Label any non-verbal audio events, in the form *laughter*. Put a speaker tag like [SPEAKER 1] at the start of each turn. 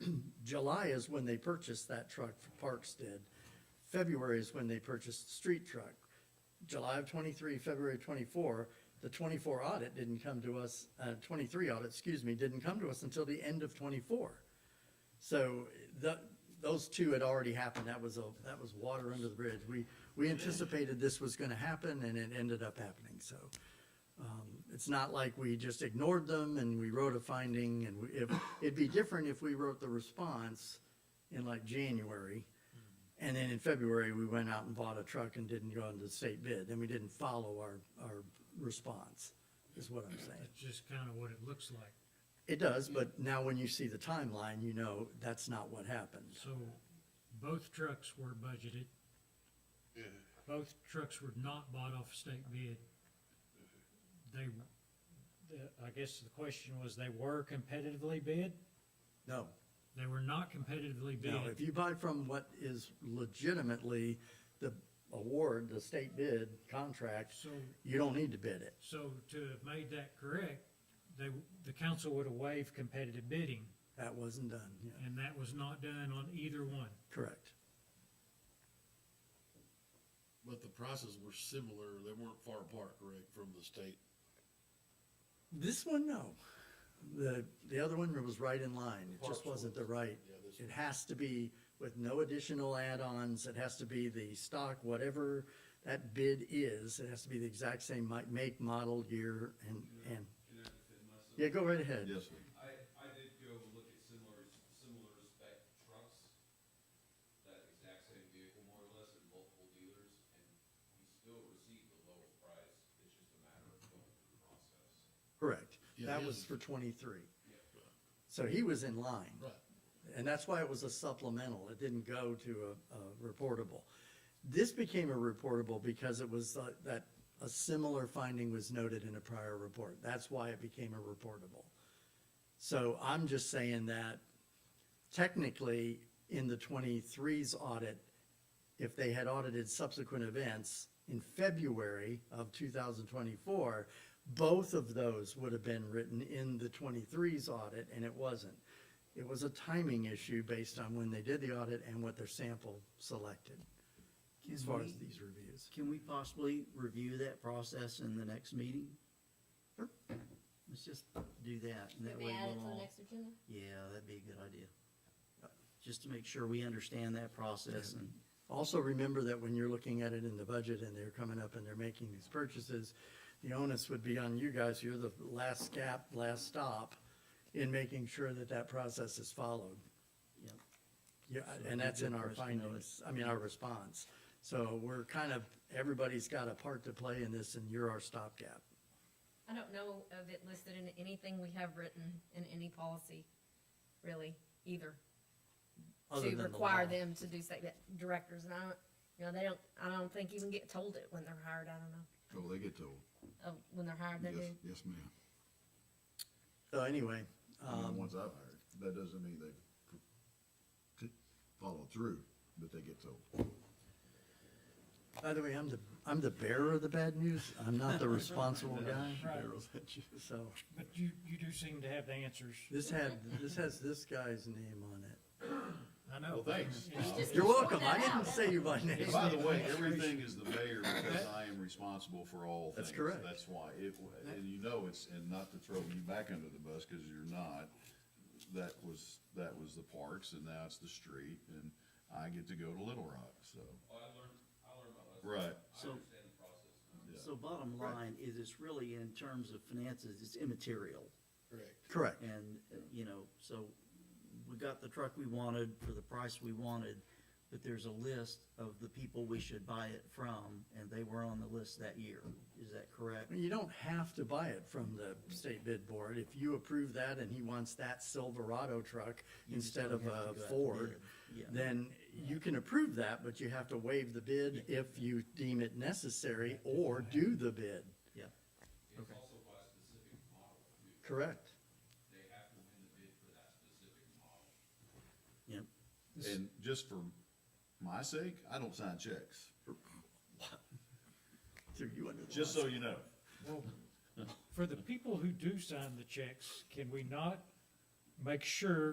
[SPEAKER 1] *clears throat* July is when they purchased that truck, Parks did. February is when they purchased the street truck. July of twenty-three, February twenty-four, the twenty-four audit didn't come to us, uh, twenty-three audit, excuse me, didn't come to us until the end of twenty-four. So the, those two had already happened. That was a, that was water under the bridge. We, we anticipated this was gonna happen and it ended up happening, so. um, It's not like we just ignored them and we wrote a finding and we, it, it'd be different if we wrote the response in like January. And then in February, we went out and bought a truck and didn't go into the state bid. Then we didn't follow our, our response, is what I'm saying.
[SPEAKER 2] That's just kind of what it looks like.
[SPEAKER 1] It does, but now when you see the timeline, you know that's not what happened.
[SPEAKER 2] So both trucks were budgeted. Both trucks were not bought off state bid. They, the, I guess the question was, they were competitively bid?
[SPEAKER 1] No,
[SPEAKER 2] They were not competitively
[SPEAKER 1] no, if
[SPEAKER 2] bid.
[SPEAKER 1] you buy from what is legitimately the award, the state bid contract,
[SPEAKER 2] So,
[SPEAKER 1] you don't need to bid it.
[SPEAKER 2] so to have made that correct, they, the council would have waived competitive bidding,
[SPEAKER 1] That wasn't done, yeah,
[SPEAKER 2] and that was not done on either one.
[SPEAKER 1] correct.
[SPEAKER 3] But the prices were similar, they weren't far apart, correct, from the state?
[SPEAKER 1] This one, no. The, the other one was right in line. It just
[SPEAKER 3] Parks
[SPEAKER 1] wasn't the
[SPEAKER 3] was.
[SPEAKER 1] right.
[SPEAKER 3] Yeah, this
[SPEAKER 1] It
[SPEAKER 3] one.
[SPEAKER 1] has to be with no additional add-ons. It has to be the stock, whatever that bid is. It has to be the exact same mi- make, model, year, and, and,
[SPEAKER 4] Can I just unless
[SPEAKER 1] yeah, go right ahead.
[SPEAKER 3] sir.
[SPEAKER 4] I, I did go look at similar, similar spec trucks, that exact same vehicle more or less, at multiple dealers, and we still received the lowest price, it's just a matter of going through the process.
[SPEAKER 1] Correct.
[SPEAKER 3] Yeah,
[SPEAKER 1] That
[SPEAKER 3] his
[SPEAKER 1] was
[SPEAKER 3] is-
[SPEAKER 1] for twenty-three. So he was in line.
[SPEAKER 3] Right,
[SPEAKER 1] And that's why it was a supplemental. It didn't go to a, a reportable. This became a reportable because it was uh, that a similar finding was noted in a prior report. That's why it became a reportable. So I'm just saying that technically in the 23's audit, if they had audited subsequent events in February of 2024, both of those would have been written in the 23's audit, and it wasn't. It was a timing issue based on when they did the audit and what their sample selected, as
[SPEAKER 5] Can
[SPEAKER 1] far
[SPEAKER 5] we-
[SPEAKER 1] as these reviews.
[SPEAKER 5] Can we possibly review that process in the next meeting?
[SPEAKER 1] Sure.
[SPEAKER 5] Let's just do that, and that
[SPEAKER 6] Maybe
[SPEAKER 5] way
[SPEAKER 6] add it to
[SPEAKER 5] we'll
[SPEAKER 6] the
[SPEAKER 5] all,
[SPEAKER 6] next agenda?
[SPEAKER 5] yeah, that'd be a good idea. Just to make sure we understand that process and,
[SPEAKER 1] Also, remember that when you're looking at it in the budget and they're coming up and they're making these purchases, the onus would be on you guys, you're the last gap, last stop in making sure that that process is followed.
[SPEAKER 5] yeah,
[SPEAKER 1] Yeah,
[SPEAKER 5] So
[SPEAKER 1] and
[SPEAKER 5] I
[SPEAKER 1] that's
[SPEAKER 5] think
[SPEAKER 1] in
[SPEAKER 5] the
[SPEAKER 1] our
[SPEAKER 5] first note-
[SPEAKER 1] findings, I mean, our response. So we're kind of, everybody's got a part to play in this and you're our stopgap.
[SPEAKER 6] I don't know of it listed in anything we have written in any policy, really, either.
[SPEAKER 1] other
[SPEAKER 6] To
[SPEAKER 1] than the
[SPEAKER 6] require
[SPEAKER 1] law.
[SPEAKER 6] them to do state directors, and I don't, you know, they don't, I don't think even get told it when they're hired, I don't know.
[SPEAKER 7] Oh, they get told.
[SPEAKER 6] Oh, when they're hired, they
[SPEAKER 7] Yes,
[SPEAKER 6] do.
[SPEAKER 7] yes, ma'am.
[SPEAKER 1] So anyway,
[SPEAKER 7] Even the
[SPEAKER 1] um,
[SPEAKER 7] ones I've hired. That doesn't mean they c- c- follow through, but they get told.
[SPEAKER 1] by the way, I'm the, I'm the bearer of the bad news. I'm not the responsible guy,
[SPEAKER 2] Right,
[SPEAKER 1] so.
[SPEAKER 2] but you, you do seem to have the answers.
[SPEAKER 1] This had, this has this guy's name on it.
[SPEAKER 2] I know.
[SPEAKER 4] Well, thanks. Uh,
[SPEAKER 2] It's-
[SPEAKER 6] Just
[SPEAKER 1] You're
[SPEAKER 6] point
[SPEAKER 1] welcome. I
[SPEAKER 6] that
[SPEAKER 1] didn't
[SPEAKER 6] out.
[SPEAKER 1] say you
[SPEAKER 5] *laughs*
[SPEAKER 1] by name.
[SPEAKER 4] By the way, everything is the mayor because I am responsible for all
[SPEAKER 1] That's
[SPEAKER 4] things.
[SPEAKER 1] correct.
[SPEAKER 4] That's why it, and you know it's, and not to throw you back under the bus because you're not. That was, that was the parks and now it's the street and I get to go to Little Rock, so. Oh, I learned, I learned my lesson.
[SPEAKER 5] so.
[SPEAKER 4] Yeah.
[SPEAKER 5] So bottom line is it's really in terms of finances, it's immaterial.
[SPEAKER 3] correct.
[SPEAKER 1] Correct.
[SPEAKER 5] And, uh, you know, so we got the truck we wanted for the price we wanted, but there's a list of the people we should buy it from, and they were on the list that year. Is that correct?
[SPEAKER 1] You don't have to buy it from the state bid board. If you approve that and he wants that Silverado truck
[SPEAKER 5] You just
[SPEAKER 1] instead
[SPEAKER 5] don't
[SPEAKER 1] of
[SPEAKER 5] have to
[SPEAKER 1] a
[SPEAKER 5] go out to
[SPEAKER 1] Ford,
[SPEAKER 5] bid. Yeah.
[SPEAKER 1] then you can approve that, but you have to waive the bid if you deem it necessary or do the bid.
[SPEAKER 5] Yeah.
[SPEAKER 4] It's also by specific model, too.
[SPEAKER 1] Correct.
[SPEAKER 4] They have to win the bid for that specific model.
[SPEAKER 5] Yep.
[SPEAKER 4] And just for my sake, I don't sign checks,
[SPEAKER 1] So you under the
[SPEAKER 4] just so you know.
[SPEAKER 2] Well, For the people who do sign the checks, can we not make sure